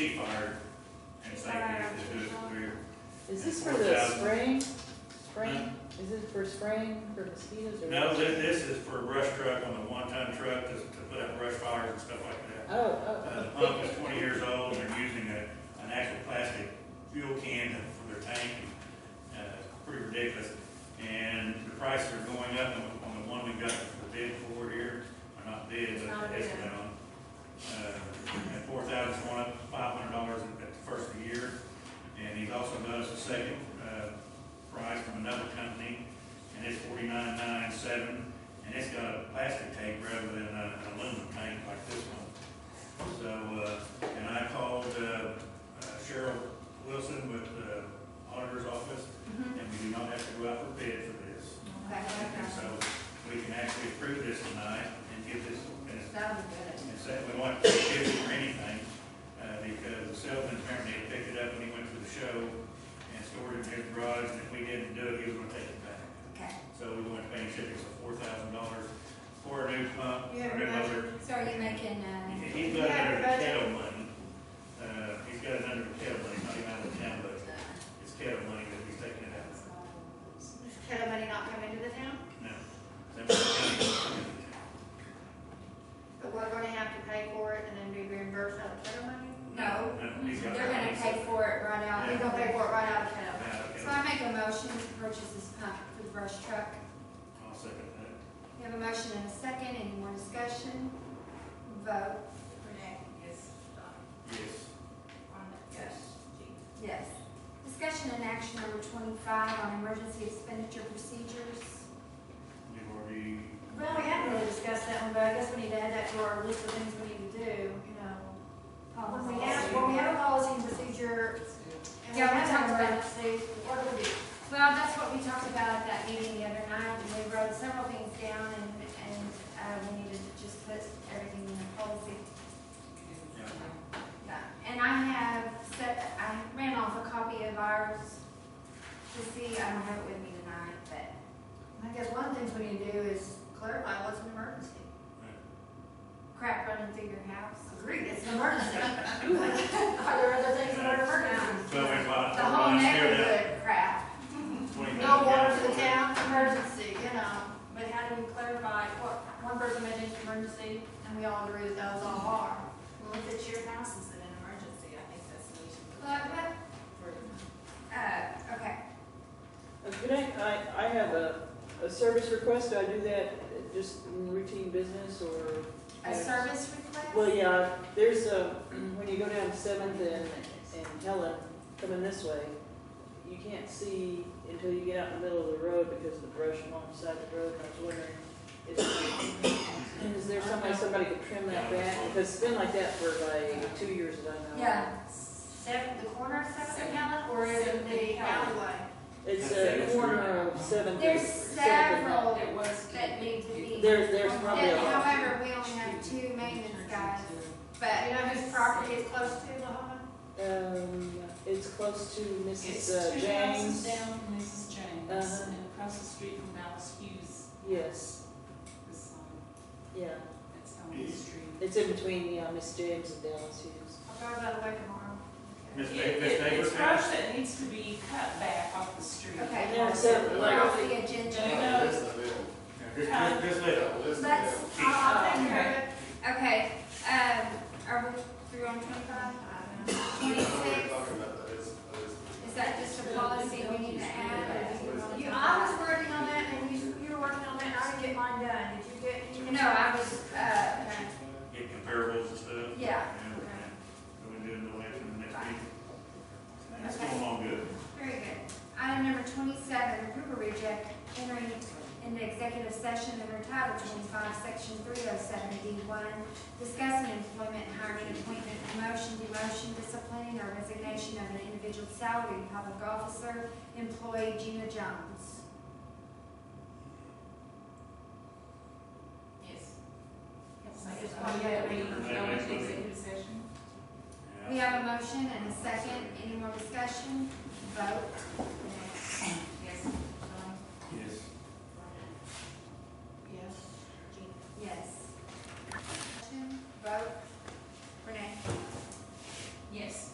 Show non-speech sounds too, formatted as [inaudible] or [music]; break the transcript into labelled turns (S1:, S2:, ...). S1: He fired, and it's like, we just do it, we're-
S2: Is this for the spraying, spraying, is it for spraying for mosquitoes or?
S1: no, thi- this is for a brush truck on the one-ton truck to, to put up brush fires and stuff like that.
S2: Oh, oh,
S1: Uh, the
S2: oh.
S1: pump is twenty years old, and they're using a, an actual plastic fuel can to- for their tank, and, uh, it's pretty ridiculous. And the prices are going up on, the- on the one we got the bid for here, or not bid, but the estimate on. Uh, at four thousand, going up five hundred dollars at the first of the year, and he's also got us a second, uh, price from another company, and it's forty-nine nine seven, and it's got a plastic tank rather than a- an aluminum tank like this one. So, uh, and I called uh, uh, Cheryl Wilson with the auditor's office,
S3: Mhm.
S1: and we do not have to go out for bid for this.
S3: Okay,
S1: And
S3: okay.
S1: so we can actually approve this tonight and get this, and it's-
S3: That would be good.
S1: and say we want to give it for anything, uh, because Selden apparently had picked it up when he went to the show and stored it in his garage, and if we didn't do it, he was gonna take it back.
S3: Okay.
S1: So we went to pay shipping for four thousand dollars for a new pump,
S4: You
S1: a
S4: have
S1: new
S4: a
S1: motor,
S3: So are you making, uh,
S1: He's got it under the kettle money, uh, he's got it under the kettle money, not even out of the town budget,
S3: uh,
S1: it's kettle money that he's taking it out.
S4: Does Kettle money not come into the town?
S1: No. That was the county that's coming to town.
S4: But we're gonna have to pay for it and then be reimbursed out of kettle money?
S3: no,
S1: No, he's got.
S3: they're gonna pay for it right out,
S4: We're
S3: they're
S4: gonna pay
S3: gonna
S4: for it right out of kettle.
S1: it.
S3: pay. So I make a motion to purchase this pump for the brush truck.
S1: I'll second that.
S3: We have a motion and a second, any more discussion? Vote.
S5: Renee? Yes. Don?
S1: Yes.
S5: Rhonda? Yes. Jean?
S3: Yes. Discussion and action number twenty-five on emergency expenditure procedures.
S1: You've already.
S3: Well, we haven't really discussed that one, but I guess we need to add that to our list of things we need to do, you know. Uh, When we have, when we have a policy and procedure, and we
S5: Yeah, we
S3: have time
S5: talked about
S3: to see, what do we do? Well, that's what we talked about at that meeting the other night, and we wrote several things down, and, and, uh, we needed to just put everything in the policy.
S1: Yeah.
S3: Yeah, and I have set, I ran off a copy of ours to see, I don't have it with me tonight, but I guess one of the things we need to do is
S4: Clarify, what's an emergency?
S3: crap running through your house.
S4: Agreed, it's an
S3: [laughs]
S4: emergency.
S3: Are there other things
S1: that are
S3: emergency?
S1: Well, we've got.
S3: The whole neighborhood crap,
S4: No water to the town, emergency, you know.
S5: But how do you clarify, what, one person made an emergency,
S4: And we all agree that those all are.
S5: well, if it's your house, it's an emergency, I think that's the issue.
S3: but, but, uh, okay.
S2: Uh, Could I, I, I have a, a service request, do I do that uh, just in routine business or?
S3: A service request?
S2: Well, yeah, there's a, [clears throat] when you go down Seventh and, and Helen, coming this way, you can't see until you get out in the middle of the road because of the brush alongside the road, I was wondering, is, is there somebody, somebody could trim that back? Because it's been like that for like two years that I know.
S3: Yeah,
S4: Seven, the corner of Seventh and Helen, or is it the
S5: Seventh.
S4: alleyway?
S2: It's a corner of Seventh.
S3: there's
S2: Seventh and-
S3: several
S5: It was.
S3: that need to be.
S2: There's, there's probably a
S3: Yeah,
S2: lot.
S3: However, we only have two maintenance guys, but.
S4: You know whose property it's close to, Lahoma?
S2: Um, it's close to
S6: It's
S2: Mrs. uh,
S6: two houses
S2: James.
S6: down from Mrs. James,
S2: Uh-huh.
S6: and across the street from Dallas Hughes,
S2: Yes,
S6: this, um,
S2: yeah,
S6: that's on the street.
S2: it's in between, yeah, Miss James and Dallas Hughes.
S4: I'll drive that away tomorrow.
S1: Miss
S6: It-
S1: Davis,
S6: it-
S1: Davis
S6: It's brush that needs to be cut back off the street.
S3: Okay.
S2: And there's several,
S3: We're
S2: like,
S3: off the agenda.
S6: No.
S1: Just, just, just let it.
S3: Let's, I'll take care of
S6: Okay.
S3: it. Okay, um, are we through on twenty-five? Twenty-six, is that just a policy we need to add? or do
S4: You,
S3: you
S4: I
S3: want
S4: was working on that, and you, you were working on that, and I didn't get mine done. Did you get?
S3: to-
S4: you-
S3: No, I was, uh,
S1: Get comparables and stuff.
S3: Yeah.
S1: So we do it the way it's in the next
S3: Right.
S1: meeting. That's going along good.
S3: very good. Item number twenty-seven, approve or reject entering into executive session under Title twenty-five, section three oh seven D one, discussing employment, hiring, appointment, promotion, demotion, disciplining, or resignation of an individual salary public officer, employee Gina Jones.
S5: Yes.
S6: Yes.
S5: I just want to get a reading,
S1: Everybody makes
S5: going into
S1: motion.
S5: executive session.
S3: We have a motion and a second. Any more discussion? Vote.
S5: Um,